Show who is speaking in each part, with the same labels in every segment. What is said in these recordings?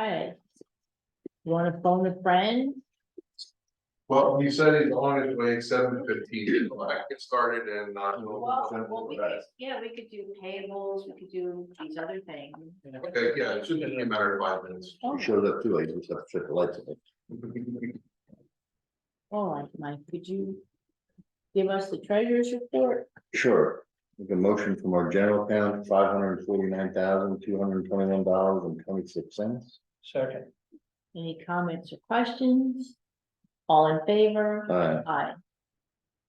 Speaker 1: Okay. You wanna phone a friend?
Speaker 2: Well, he said he's on his way seven fifteen, so I can get started and not.
Speaker 1: Well, well, we could, yeah, we could do payables, we could do these other things.
Speaker 2: Okay, yeah, it should be a matter of five minutes.
Speaker 1: Oh.
Speaker 3: He showed up too, I just have to check the lights.
Speaker 1: All right, oh, Mike, could you give us the treasurer's report?
Speaker 3: Sure, make a motion from our general account, five hundred and forty-nine thousand, two hundred and twenty-one dollars and twenty-six cents.
Speaker 4: Second,
Speaker 1: Any comments or questions? All in favor?
Speaker 3: Aye.
Speaker 1: Aye.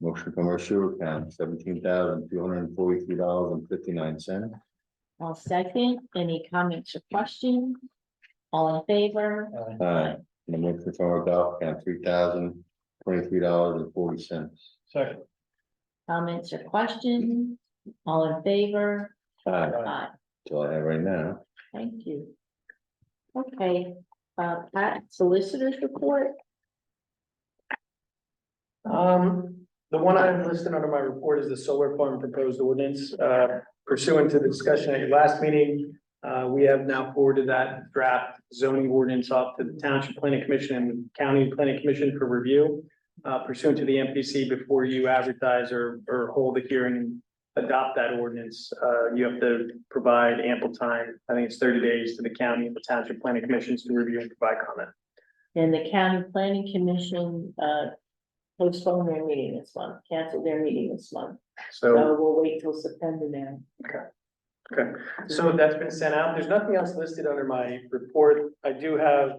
Speaker 3: motion from our sewer account, seventeen thousand, two hundred and forty-three dollars and fifty-nine cents.
Speaker 1: All second, any comments or questions? All in favor?
Speaker 4: uh,
Speaker 3: Aye. and a motion from our golf account, three thousand, twenty-three dollars and forty cents.
Speaker 4: second,
Speaker 1: Comments or questions? All in favor?
Speaker 3: Aye.
Speaker 4: uh,
Speaker 1: Aye.
Speaker 3: that's all I have right now.
Speaker 1: Thank you. Okay, uh, Pat, solicitors report?
Speaker 4: Um, the one item listed under my report is the solar farm proposed ordinance, uh, pursuant to the discussion at your last meeting. Uh, we have now forwarded that draft zoning ordinance off to the Township Planning Commission and County Planning Commission for review. Uh, pursuant to the MPC, before you advertise or, or hold a hearing and adopt that ordinance, uh, you have to provide ample time. I think it's thirty days to the county and the Township Planning Commissions to review and provide comment.
Speaker 1: And the county planning commission, uh, postponed their meeting this month, canceled their meeting this month. So we'll wait till September now.
Speaker 4: So that's been sent out. There's nothing else listed under my report. I do have, I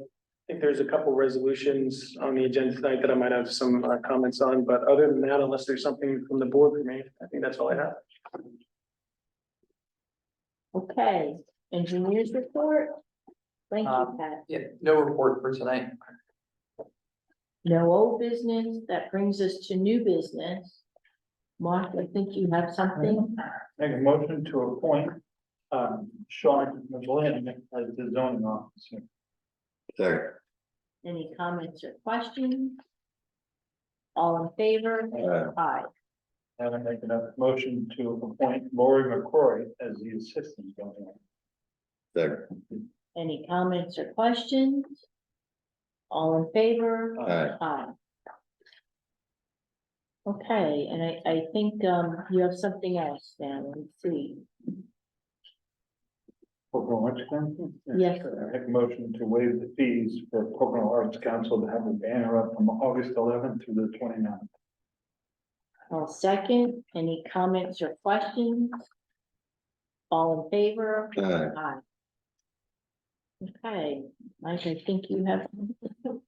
Speaker 4: think there's a couple resolutions on the agenda tonight that I might have some uh, comments on, but other than that, unless there's something from the board for me, I think that's all I have.
Speaker 1: Okay, engineers report? Thank you,
Speaker 5: Um,
Speaker 1: Pat.
Speaker 5: Yeah, no report for tonight.
Speaker 1: No old business, that brings us to new business. Mark, I think you have something?
Speaker 6: Make a motion to appoint, um, Sean McGlynn as the zoning officer.
Speaker 3: Second.
Speaker 1: Any comments or questions? All in favor?
Speaker 3: Aye.
Speaker 1: Aye.
Speaker 6: And I make a motion to appoint Lori McCrory as the assistant zoning officer.
Speaker 3: Second.
Speaker 1: Any comments or questions? All in favor?
Speaker 6: Uh,
Speaker 3: Aye.
Speaker 1: Aye. Okay, and I, I think, um, you have something else now, let me see.
Speaker 6: Pocono Arts Council?
Speaker 1: Yes.
Speaker 6: I make a motion to waive the fees for Pocono Arts Council to have a banner up from August eleventh through the 29th.
Speaker 1: I'll second, any comments or questions? All in favor?
Speaker 3: Aye.
Speaker 1: Aye. Okay, Mike, I think you have,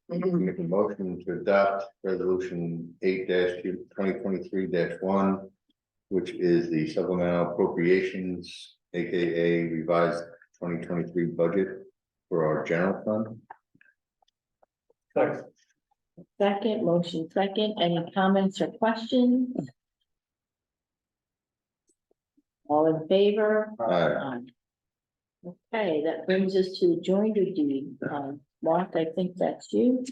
Speaker 3: Make a motion to adopt resolution eight 2023 one. Which is the supplemental appropriations, AKA revised twenty twenty-three budget for our general fund.
Speaker 6: Second,
Speaker 1: second, motion second, any comments or questions? All in favor?
Speaker 3: Aye.
Speaker 1: Um, Okay, that brings us to the joinder deed. Um, Mark, I think that's you.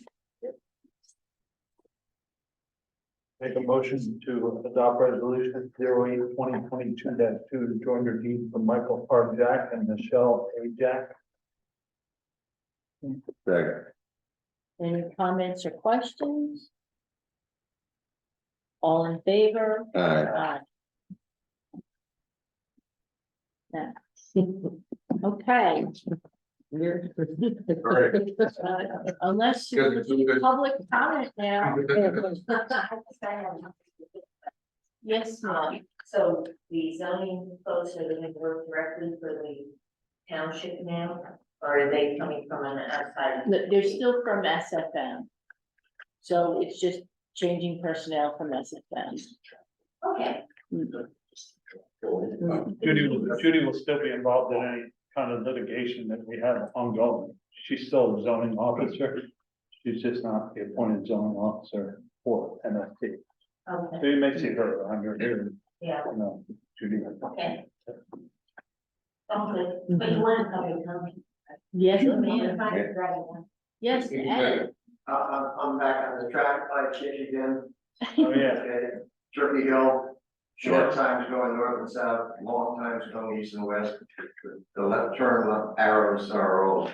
Speaker 6: make a motion to adopt resolution 08 2022 two to join your deed for Michael R. Jack and Michelle A. Jack.
Speaker 3: second,
Speaker 1: Any comments or questions? All in favor?
Speaker 3: aye,
Speaker 1: Aye. That- Okay. We're-
Speaker 2: Alright.
Speaker 1: Uh, Unless you
Speaker 2: Good,
Speaker 1: want to
Speaker 2: good,
Speaker 1: do
Speaker 2: good.
Speaker 1: public comment now. Yes, ma'am.
Speaker 7: Um, so the zoning folks are gonna work directly for the township now, or are they coming from an outside?
Speaker 1: No, They're still from SFM. So it's just changing personnel from SFM.
Speaker 7: Okay,
Speaker 6: Judy will, Judy will still be involved in any kind of litigation that we have ongoing. She's still a zoning officer. She's just not the appointed zoning officer for MFT.
Speaker 7: okay,
Speaker 6: So you may see her around here, you
Speaker 7: yeah,
Speaker 6: know, Judy.
Speaker 7: okay. Okay, but you wanna come and tell me?
Speaker 1: Yes,
Speaker 7: If
Speaker 1: ma'am.
Speaker 7: I could write one.
Speaker 1: Yes, Ed.
Speaker 8: Uh, I'm, I'm back on the track, I changed again,
Speaker 6: Oh, yeah.
Speaker 8: okay, Turkey Hill, short times going north and south, long times going east and west. The left turn, left arrows are all